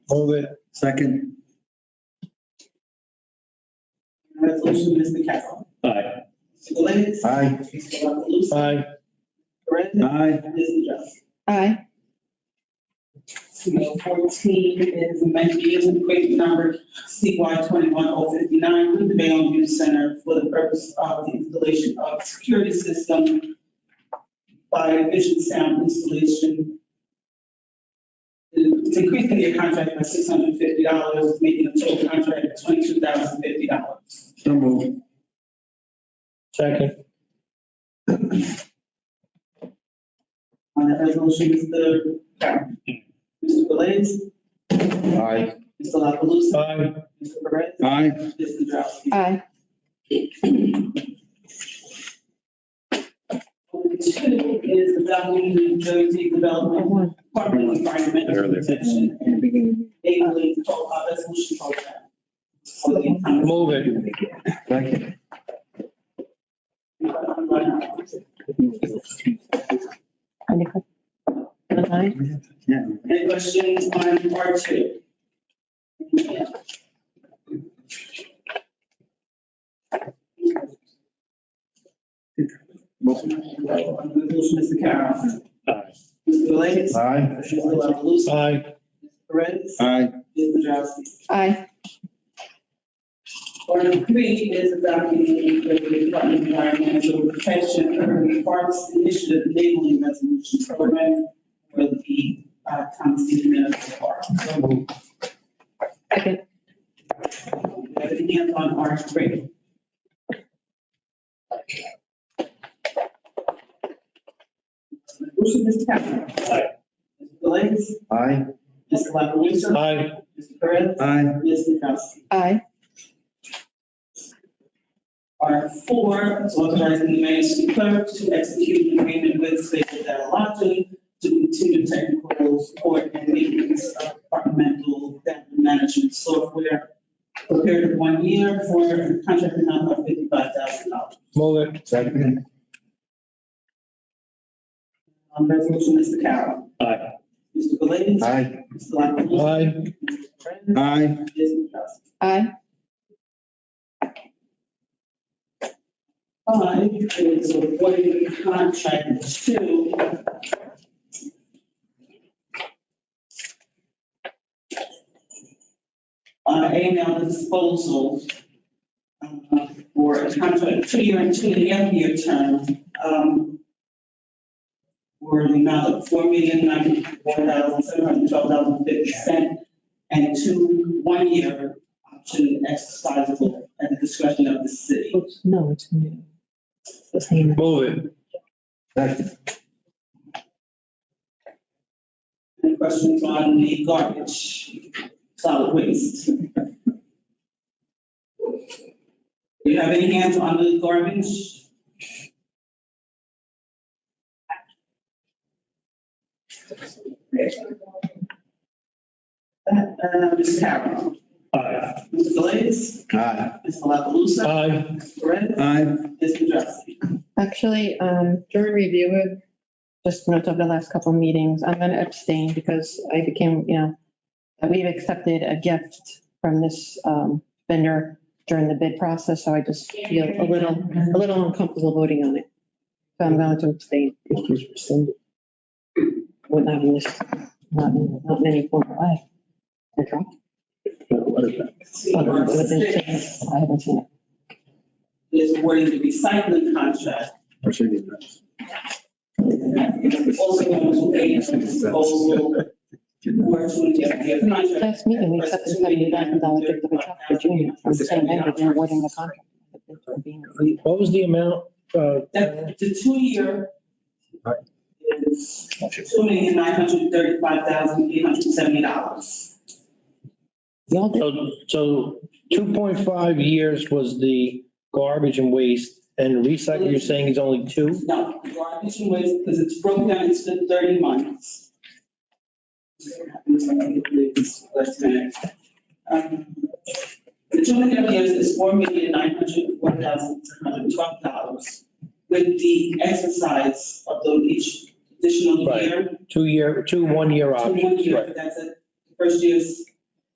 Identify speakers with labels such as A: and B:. A: Hold it. Second.
B: Resolution, Mr. Carroll.
C: Aye.
B: Mr. Galais.
A: Aye.
B: Mr. La Palusa?
C: Aye.
B: Brandon?
A: Aye.
B: And Mrs. Jones.
D: Aye.
B: Bill fourteen is amending vehicle equipment number CY twenty-one oh fifty-nine with the Bayonne Youth Center for the purpose of the installation of security system by vision sound installation. It's Increasing their contract by six hundred and fifty dollars, making the total contract twenty-two thousand fifty dollars.
A: So moved.
C: Second.
B: On that resolution, Mr. Brown. Mr. Galais.
A: Aye.
B: Mr. La Palusa?
C: Aye.
B: Mr. Perez?
A: Aye.
B: Mr. Drowsy?
D: Aye.
B: Two is the Dublin, New Jersey Development
D: One.
B: Department of Environmental Protection and Daily Resolution Program. For the economy.
C: Move it.
A: Second.
D: Aye.
A: Yeah.
B: Any questions on R two? Resolution, Mr. Carroll.
C: Aye.
B: Mr. Galais.
A: Aye.
B: Mr. La Palusa?
C: Aye.
B: Perez?
A: Aye.
B: Mr. Drowsy?
D: Aye.
B: Article three is adopting the Department of Environmental Protection Urban Parks Initiative Enabling Resolution Program for the uh, Thompson Municipal Park.
D: Second.
B: Have any hands on Article three? Resolution, Mr. Capello. Mr. Galais.
A: Aye.
B: Mr. La Palusa?
C: Aye.
B: Mr. Perez.
A: Aye.
B: Ms. Nadrowski.
D: Aye.
B: R four, is authorizing the mayor's clerk to execute an agreement with Space Dalalato to continue technical support and maintenance of departmental data management software for a period of one year for a contract amount of fifty-five thousand dollars.
C: Move it.
A: Second.
B: On resolution, Mr. Carroll.
C: Aye.
B: Mr. Galais.
A: Aye.
B: Mr. La Palusa.
C: Aye.
B: Mr. Brennan.
A: Aye.
B: Ms. Nadrowski.
D: Aye.
B: Five is awarding the contract to. Uh, A and L disposal. um, For a contract, two-year and two-and-a-half-year term. um, For the amount of four million ninety-one thousand seven hundred twelve dollars and fifty cent. And two, one-year option exercisable at the discretion of the city.
D: No, it's new. It's new.
C: Move it.
A: Second.
B: Any questions on the garbage, solid waste? Do you have any hands on the garbage? Uh, uh, Ms. Carroll,
C: Aye.
B: Mr. Galais,
A: Aye.
B: Mr. La Palusa,
C: Aye.
B: Mr. Perez,
A: Aye.
B: Mr. Drowsy.
D: Actually, um, during review of, just notes of the last couple meetings, I'm going to abstain because I became, you know, we've accepted a gift from this, um, vendor during the bid process, so I just feel a little, a little uncomfortable voting on it. So I'm going to abstain. Would not in this, not, in- not in any form of life. Okay. Other than what they say, I haven't seen it.
B: Is awarding the recycling contract also going to pay for disposal for twenty-year contract.
D: Last meeting, we accepted seventy thousand dollars gift of a truck for junior from the same vendor, they're awarding the contract. but it's for being reviewed.
C: What was the amount? Uh,
B: That, the two-year
A: Right.
B: is two million nine hundred thirty-five thousand eight hundred seventy dollars.
D: Y'all did,
C: So, so two point five years was the garbage and waste and recycle, you're saying is only two?
B: No, garbage and waste, because it's broken down into thirty months. Um, The two million years is four million nine hundred one thousand seven hundred twelve dollars with the exercise of the each additional
C: Right.
B: year.
C: Two year, two one year
B: So one
C: options,
B: year,
C: right?
B: but that's it. The First year's